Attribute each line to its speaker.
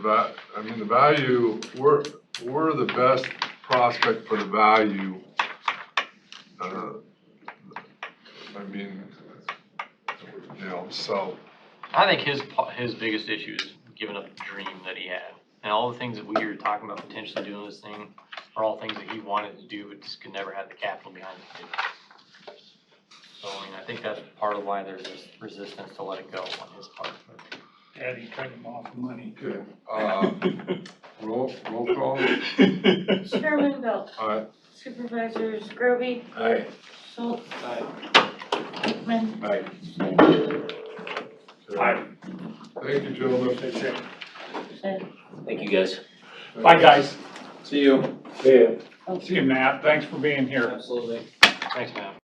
Speaker 1: va- I mean, the value, we're, we're the best prospect for the value. uh, I mean, you know, so,
Speaker 2: I think his, po- his biggest issue is giving up the dream that he had. And all the things that we were talking about potentially doing this thing are all things that he wanted to do, but just could never have the capital behind it to do. it. So, I mean, I think that's part of why there's this resistance to let it go on his part.
Speaker 3: Daddy cut him off money.
Speaker 1: okay, uh, roll, roll call,
Speaker 4: Chairman Belt,
Speaker 1: aye.
Speaker 4: Supervisors Groby,
Speaker 1: Aye.
Speaker 4: Schultz. Hickman.
Speaker 1: Aye.
Speaker 3: Aye.
Speaker 1: Thank you, gentlemen.
Speaker 3: That's it.
Speaker 4: Said,
Speaker 5: Thank you, guys.
Speaker 3: Bye, guys.
Speaker 5: See you.
Speaker 3: See you, Matt. Thanks for being here.
Speaker 5: Absolutely.
Speaker 2: Thanks, man.